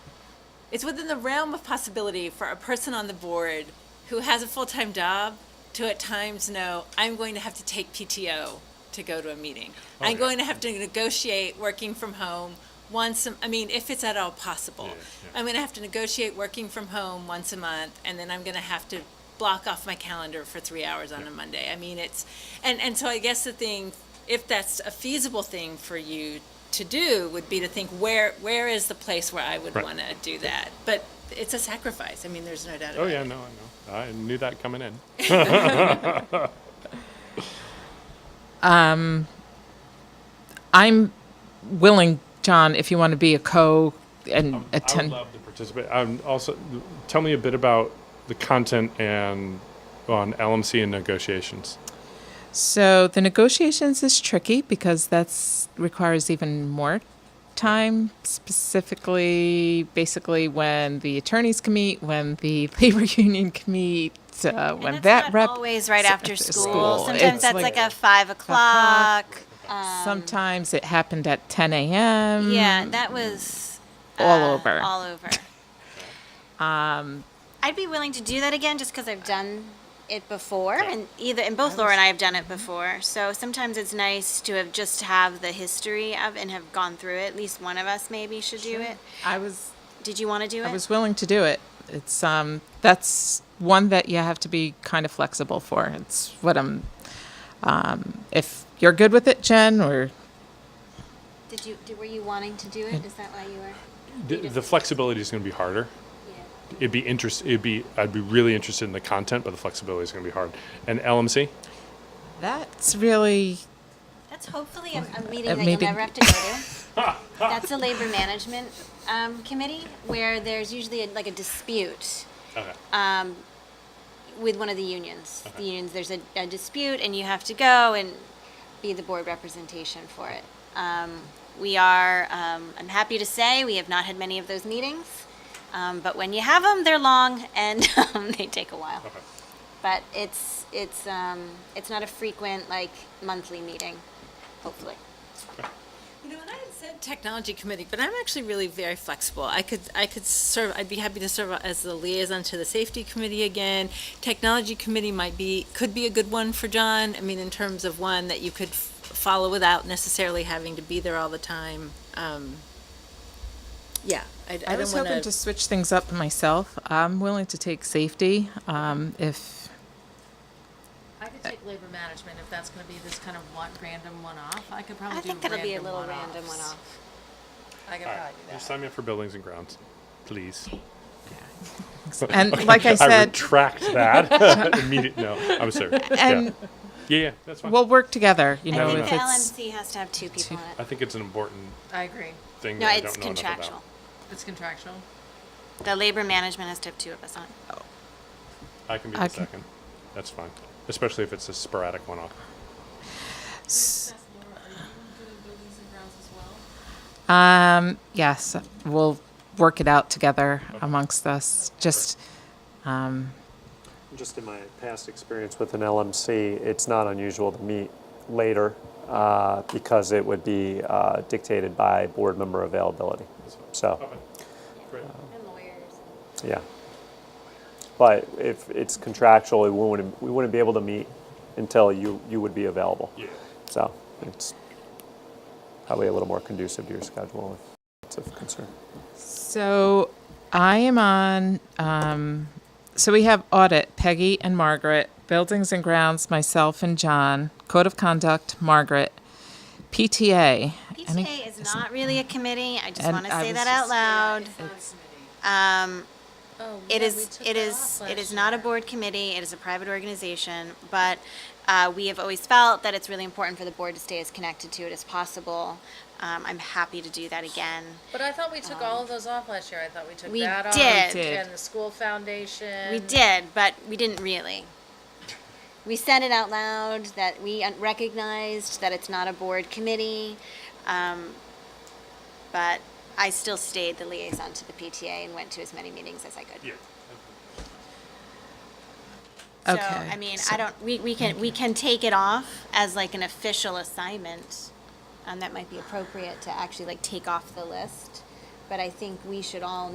it's within the realm of possibility for a person on the board who has a full-time job to at times know I'm going to have to take PTO to go to a meeting. I'm Oh, yeah. going to have to negotiate working from home once. A, I mean, if it's at all possible, Yeah, yeah. I'm going to have to negotiate working from home once a month, and then I'm going to have to block off my calendar for three hours on a Monday. I mean, it's and and so I guess the thing, if that's a feasible thing for you to do, would be to think where where is the place where I would Right. want to do that, but. It's a sacrifice. I mean, there's no doubt about Oh it. yeah, no, I know. I knew that coming in. I'm willing, John, if you want to be a co and Um, I would attend. love to participate. Um, also, tell me a bit about the content and on LMC and negotiations. So the negotiations is tricky because that's requires even more time specifically basically when the attorneys can meet when the labor union can meet uh, when that And that's not rep always right after after school. school. Sometimes It's that's like like, a five o'clock. Um, sometimes it happened at 10 a.m yeah, that was Mm-hmm. all uh, over. Um, All over. um, I'd be willing to do that again just because I've done it before, and either and both Laura and I have done it Mm-hmm. before. So sometimes it's nice to have just have the history of and have gone through it. At least one of us maybe should do it. i was Did you want to do it? I was willing to do it. It's um that's one that you have to be kind of flexible for. It's what I'm um if you're good with it, Jen, or did you? Did, were you wanting to do it? Is that why you were? The, the flexibility is going to be harder. Yeah. It'd be interest. It'd be. I'd be really interested in the content, but the flexibility is going to be hard. And LMC. that's really That's hopefully a, a Uh, meeting that you'll maybe- never have to go to. That's the labor management um, committee where there's usually a, like a dispute Okay. um, with one of the unions. The unions, there's a, a dispute, and you have to go and be the board representation for it. Um, we are, um, I'm happy to say, we have not had many of those meetings, um, but when you have them, they're long and um, they take a while. Okay. But it's it's um, it's not a frequent like monthly meeting, hopefully. You know, and I had said technology committee, but I'm actually really very flexible. I could, I could serve, I'd be happy to serve as the liaison to the safety committee again. Technology committee might be, could be a good one for John. I mean, in terms of one that you could f- follow without necessarily having to be there all the time. Um, yeah, I, I I don't was hoping wanna, to switch things up myself. I'm willing to take safety. Um if I could take labor management if that's gonna be this kind of one, random one-off. I could probably I do think that'll be a random little random one one-offs. off. I could All right. probably do You that. sign me up for buildings and grounds, please. and like I I said, retract that immediately. No, I'm sorry. and yeah. yeah, yeah, that's fine. we'll work together, you I know, think if the it's LMC has to have two people on I it. think it's an important I agree. thing. No, that I it's don't know enough contractual. It's contractual. The labor management has to have two of us on it. about. I can be the I can- second. That's fine, especially if it's a sporadic one-off. Um, yes, we'll work it out together amongst us. Just Just in my past experience with an LMC, it's not unusual to meet later uh, because it would be uh, dictated by board member availability. So, um, Great. And lawyers. yeah. But if it's contractual, we wouldn't, we wouldn't be able to meet until you, you would be available. Yeah. So it's probably a little more conducive to your schedule if it's of concern. So I am on. Um, so we have audit, Peggy and Margaret, buildings and grounds, myself and John, code of conduct, Margaret, PTA. Any- PTA is not really a committee. I just And want to I say was that just- out loud. Um, Oh, it yeah, we is, took it that is, off it is last not a year. board committee. It is a private organization, but uh, we have always felt that it's really important for the board to stay as connected to it as possible. Um, I'm happy to do that again. But I thought we took all of those off last year. I thought Um, we took we that off. did. We did. And the school foundation. We did, but we didn't really. We said it out loud that we un- recognized that it's not a board committee, um, but I still stayed the liaison to the PTA and went to as many meetings as I could. Yeah. So, Okay, I mean, so- I don't, we, we can, we can take it off as like an official assignment, um, and that might be appropriate to actually like take off the list. But I think we should all